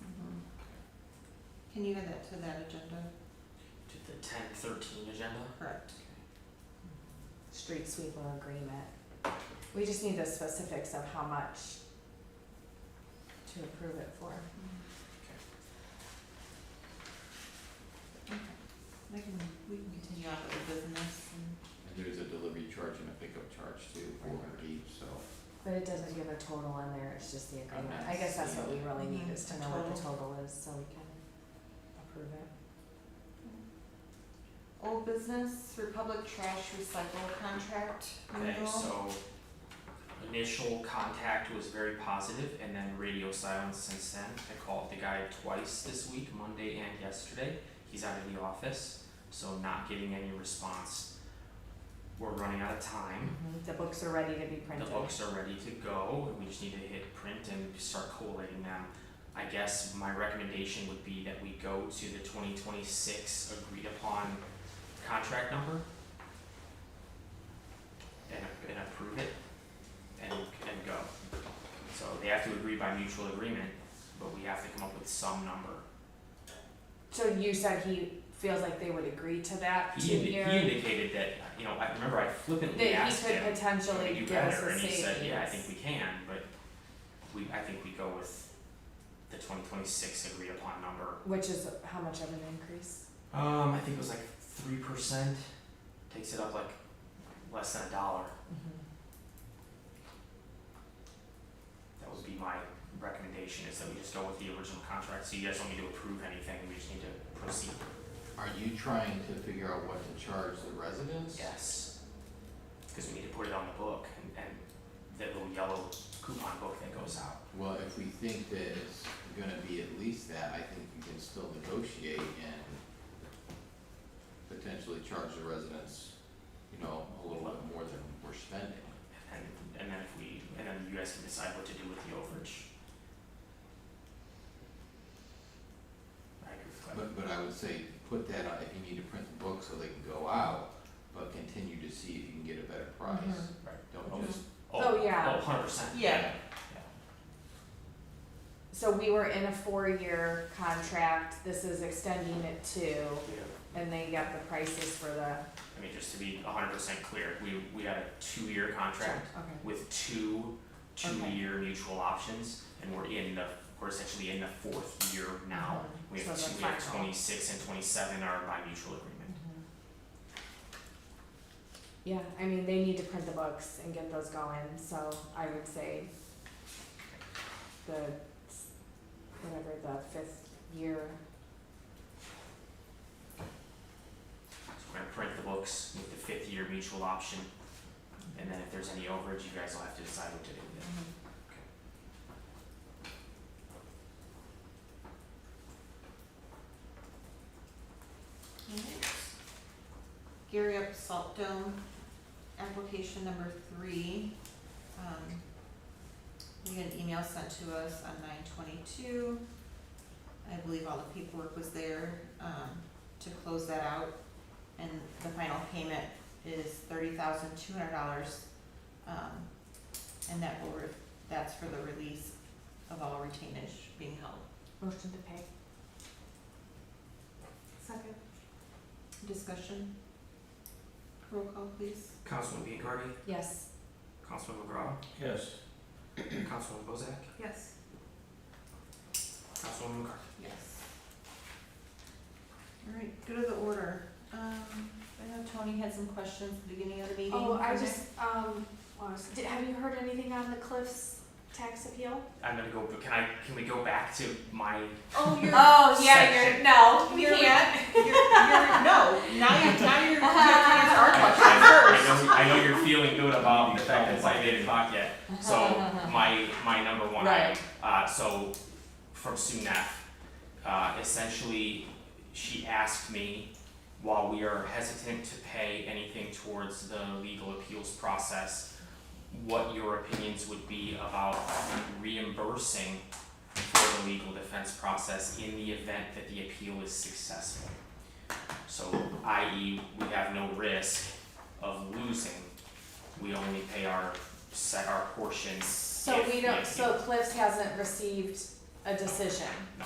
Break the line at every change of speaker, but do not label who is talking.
Mm-hmm. Can you add that to that agenda?
to the ten thirteen agenda.
Correct.
street sweeper agreement. We just need the specifics of how much to approve it for.
Mm-hmm. Okay. I can, we can continue on with the business and.
And there's a delivery charge and a pickup charge too, four hundred each, so.
But it doesn't give a total in there, it's just the agreement. I guess that's what we really need is to know what the total is, so we can approve it.
Old business, Republic Trash Recycle Contract
Okay,
renewal.
so initial contact was very positive and then radio silence since then. I called the guy twice this week, Monday and yesterday. He's out of the office, so not getting any response. We're running out of time.
Mm-hmm.
The books are ready to be
The
printed.
books are ready to go, and we just need to hit print and start collating them. I guess my recommendation would be that we go to the twenty twenty-six agreed upon contract number. And, and approve it, and, and go. So they have to agree by mutual agreement, but we have to come up with some number.
So you said he feels like they would agree to that
He, indi- he
two-year,
indicated that, you know, I remember I flippantly
that he
asked him.
could potentially
we do
give us
better,
a savings.
and he said, yeah, I think we can, but we, I think we go with the twenty twenty-six agreed upon number.
Which is how much of an increase?
Um, I think it was like three percent, takes it up like less than a dollar, that would be my recommendation, is that we just go with the original contract, so you guys don't need to approve anything, we just need to proceed.
Are you trying to figure out what to charge the residents?
Yes. Cause we need to put it on the book, and, and that little yellow coupon book that goes out.
Well, if we think that it's gonna be at least that, I think we can still negotiate and potentially charge the residents, you know, a little bit more than we're spending.
And, and then if we, and then you guys can decide what to do with the overage. I agree with Clem.
But, but I would say, put that on, if you need to print the book so they can go out, but continue to see if you can get a better price.
Mhm.
Right.
Don't just,
Oh, yeah.
Oh, hundred percent.
Yeah.
So we were in a four-year contract, this is extending it to. And they got the prices for the,
I mean, just to be hundred percent clear, we, we had a two-year contract
okay,
with two, two-year mutual options, and we're in the, we're essentially in the fourth year now. We have
Uh-huh. So the
two, we have
final.
twenty-six and twenty-seven are by mutual agreement.
Mm-hmm. yeah, I mean, they need to print the books and get those going, so I would say the, s- whatever, the fifth year,
So we're gonna print the books with the fifth year mutual option, and then if there's any overage, you guys will have to decide what to do with it.
Alright. Gary Up Salt Dome, application number three. Um, we had an email sent to us on nine twenty-two. I believe all the paperwork was there, um, to close that out. And the final payment is thirty thousand two hundred dollars. Um, and that will, re- that's for the release of all retainage being held.
motion to pay. Second.
Discussion? Roll call, please.
Councilman Biancardi,
Yes.
Councilman McGraw,
Yes.
Councilman Bozak,
Yes.
Councilwoman McCarthy.
Yes. All right, go to the order. Um, I know Tony had some questions at the beginning of the meeting.
Oh, I
Okay.
just, um, did, have you heard anything on the Cliffs tax appeal?
I'm gonna go, but can I, can we go back to my,
Oh, you're,
Oh, yeah, you're,
Section.
no, we
You're-
can't.
you're, you're, no, now you're, now you're, you're trying to answer our question
I
first.
know, I know you're feeling good about the fact that it's like eight o'clock yet, so my, my number one item
Right.
Uh, so from Sunaf, uh, essentially, she asked me, while we are hesitant to pay anything towards the legal appeals process, what your opinions would be about reimbursing for the legal defense process in the event that the appeal is successful. So, i.e., we have no risk of losing. We only pay our set our portion
So
If
we
we
don't,
have
so Cliffs hasn't received a decision?
No.